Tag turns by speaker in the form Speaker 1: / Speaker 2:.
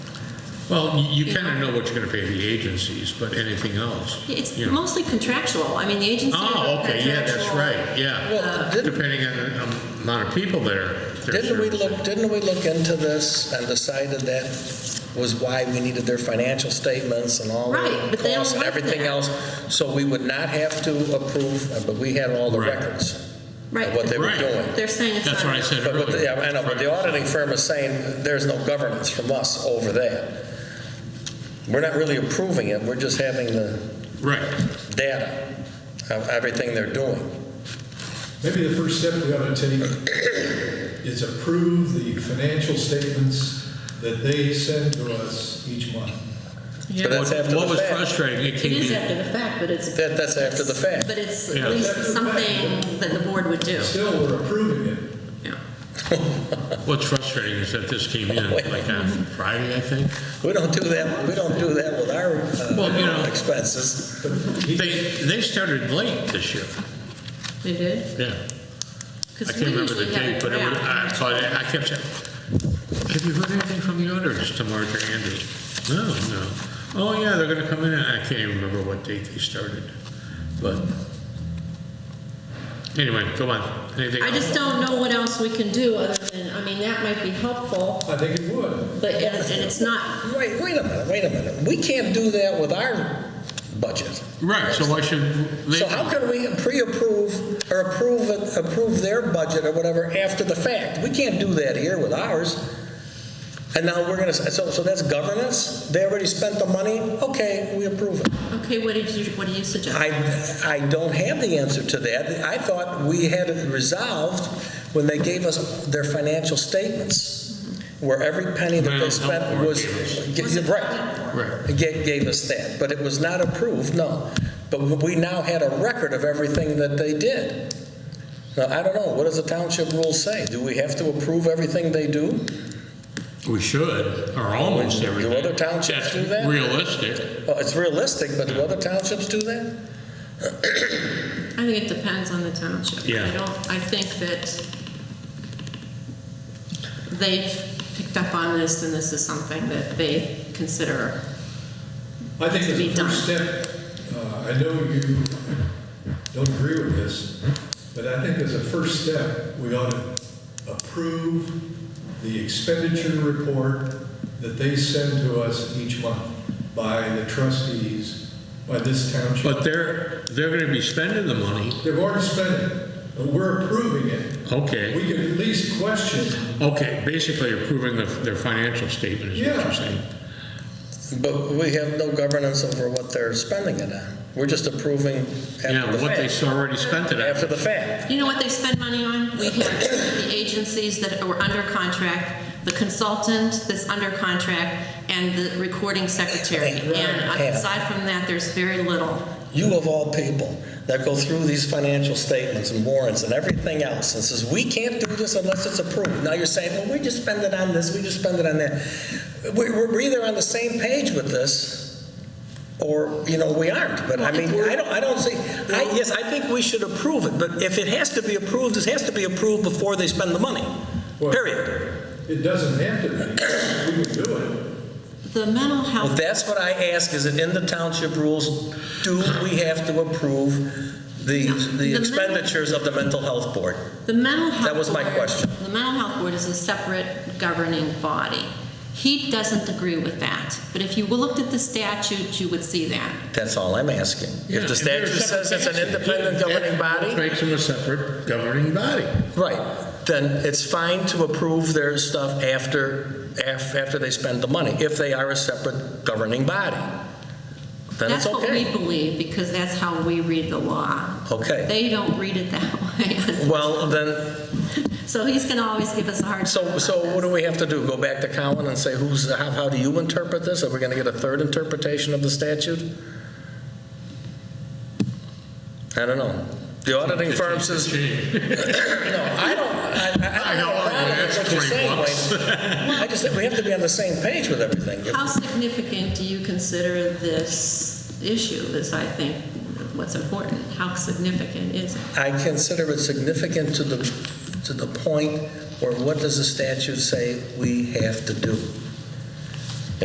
Speaker 1: Well, you kind of know what you're going to pay the agencies, but anything else?
Speaker 2: It's
Speaker 1: you know.
Speaker 2: mostly contractual. I mean, the agency.
Speaker 1: Oh, okay, yeah, that's right,
Speaker 2: uh,
Speaker 1: yeah.
Speaker 3: Well, didn't,
Speaker 1: Depending on the um, amount of people there. they're
Speaker 3: didn't we look,
Speaker 1: servicing.
Speaker 3: didn't we look into this and decided that was why we needed their financial statements and all
Speaker 2: Right,
Speaker 3: the
Speaker 2: but they don't
Speaker 3: costs and
Speaker 2: work
Speaker 3: everything
Speaker 2: there.
Speaker 3: else? So we would not have to approve, uh, but we had all the
Speaker 1: Right.
Speaker 3: records of what
Speaker 2: Right.
Speaker 3: they were
Speaker 1: Right.
Speaker 3: doing.
Speaker 2: They're saying it's not.
Speaker 1: That's what I said
Speaker 3: But what the- yeah,
Speaker 1: earlier.
Speaker 3: I know, but the auditing firm is saying there's no governance from us over that. We're not really approving it, we're just having the
Speaker 1: Right.
Speaker 3: data of everything they're doing.
Speaker 4: Maybe the first step we ought to take is approve the financial statements that they send to us each month.
Speaker 3: But that's
Speaker 1: What-
Speaker 3: after
Speaker 1: What
Speaker 3: the
Speaker 1: was
Speaker 3: fact.
Speaker 1: frustrating, it
Speaker 2: It
Speaker 1: came
Speaker 2: is
Speaker 1: in,
Speaker 2: after the fact, but it's.
Speaker 3: That- that's after the fact.
Speaker 2: But it's
Speaker 1: Yeah.
Speaker 2: at least
Speaker 4: That's after the fact.
Speaker 2: something that the board would do.
Speaker 4: Still, we're approving it.
Speaker 2: Yeah.
Speaker 1: what's frustrating is that this came in like on Friday, I think.
Speaker 3: We don't do that, we don't do that with our uh,
Speaker 1: Well, you know-
Speaker 3: expenses.
Speaker 1: They, they started late this year,
Speaker 2: They did?
Speaker 1: yeah. I
Speaker 2: Because we
Speaker 1: can't remember the
Speaker 2: usually have a
Speaker 1: date, but it was, I,
Speaker 2: draft.
Speaker 1: so I I kept saying, have you heard anything from the auditors to Mark or Andy? No, no. Oh, yeah, they're gonna come in, I can't even remember what date they started, but. Anyway, go on, anything?
Speaker 2: I just don't know what else we can do other than, I mean, that might be helpful,
Speaker 4: I think it would.
Speaker 2: but, and and it's not,
Speaker 3: Wait, wait a minute, wait a minute, we can't do that with our budget.
Speaker 1: Right, so why should they?
Speaker 3: So how can we pre-approve or approve, it- approve their budget or whatever after the fact? We can't do that here with ours. And now we're gonna, so, so that's governance? They already spent the money? Okay, we approve it.
Speaker 2: okay, what did you, what do you suggest?
Speaker 3: I, I don't have the answer to that. I thought we had it resolved when they gave us their financial statements, where every penny that they
Speaker 1: Well, health
Speaker 3: spent
Speaker 1: board
Speaker 3: was,
Speaker 2: Was it-
Speaker 3: right,
Speaker 1: Right,
Speaker 3: gave, gave us that, but it was not approved, no. But we now had a record of everything that they did. Now, I don't know, what does the township rule say? Do we have to approve everything they do?
Speaker 1: we should, or almost
Speaker 3: Do
Speaker 1: everything.
Speaker 3: other townships do
Speaker 1: That's
Speaker 3: that?
Speaker 1: Realistic,
Speaker 3: Well, it's realistic, but do other townships do that?
Speaker 2: I think it depends on the township.
Speaker 1: Yeah.
Speaker 2: I don't, I think that they've picked up on this and this is something that they consider.
Speaker 4: I think
Speaker 2: To
Speaker 4: as
Speaker 2: be
Speaker 4: a first step, uh, I know you don't agree with this, but I think as a first step, we ought to approve the expenditure report that they send to us each month by the trustees, by this township.
Speaker 1: but they're, they're gonna be spending the money,
Speaker 4: They've already spent it, but we're approving it.
Speaker 1: okay,
Speaker 4: We can at least question,
Speaker 1: okay, basically approving the- their financial statement is what
Speaker 4: Yeah.
Speaker 1: you're saying.
Speaker 3: But we have no governance over what they're spending it on. We're just approving
Speaker 1: Yeah,
Speaker 3: after the
Speaker 1: what they
Speaker 3: fact.
Speaker 1: already spent it
Speaker 3: After
Speaker 1: on.
Speaker 3: the fact.
Speaker 2: You know what they spend money on? We have the agencies that are under contract, the consultant that's under contract, and the recording secretary.
Speaker 3: Right, right,
Speaker 2: And uh,
Speaker 3: yeah.
Speaker 2: aside from that, there's very little.
Speaker 3: You of all people that go through these financial statements and warrants and everything else and says, we can't do this unless it's approved. Now you're saying, well, we just spend it on this, we just spend it on that. We- We're either on the same page with this or, you know, we aren't. But I mean, I don't, I don't see, I, yes, I think we should approve it. But if it has to be approved, it has to be approved before they spend the money,
Speaker 4: Well-
Speaker 3: period.
Speaker 4: it doesn't have to be, we can do it.
Speaker 2: The mental health.
Speaker 3: Well, that's what I ask, is it in the township rules, do we have to approve the, the
Speaker 2: men-
Speaker 3: expenditures of the mental health board?
Speaker 2: The mental health.
Speaker 3: That was my
Speaker 2: board-
Speaker 3: question.
Speaker 2: The mental health board is a separate governing body. He doesn't agree with that, but if you looked at the statute, you would see that.
Speaker 3: That's all I'm asking. If the
Speaker 1: they're
Speaker 3: statute
Speaker 1: separate
Speaker 3: says it's an
Speaker 1: agencies,
Speaker 3: independent
Speaker 1: that
Speaker 3: governing body,
Speaker 1: Makes them a separate governing body.
Speaker 3: right, then it's fine to approve their stuff after, af- after they spend the money, if they are a separate governing body. Then it's
Speaker 2: That's what we
Speaker 3: okay.
Speaker 2: believe, because that's how we read the law.
Speaker 3: Okay.
Speaker 2: They don't read it that way.
Speaker 3: Well, then,
Speaker 2: So he's going to always give us a hard. time
Speaker 3: so,
Speaker 2: about
Speaker 3: so what
Speaker 2: this.
Speaker 3: do we have to do? Go back to Colin and say, who's, how, how do you interpret this? Are we going to get a third interpretation of the statute? I don't know. The auditing firm says, No, I don't, I, I
Speaker 1: I
Speaker 3: don't have
Speaker 1: know,
Speaker 3: a problem with
Speaker 1: that's
Speaker 3: what you're
Speaker 1: 20
Speaker 3: saying,
Speaker 1: bucks.
Speaker 3: Wayne. I just think we have to be on the same page with everything.
Speaker 2: How significant do you consider this issue is, I think, what's important? How significant is it?
Speaker 3: I consider it significant to the, to the point where what does the statute say we have to do?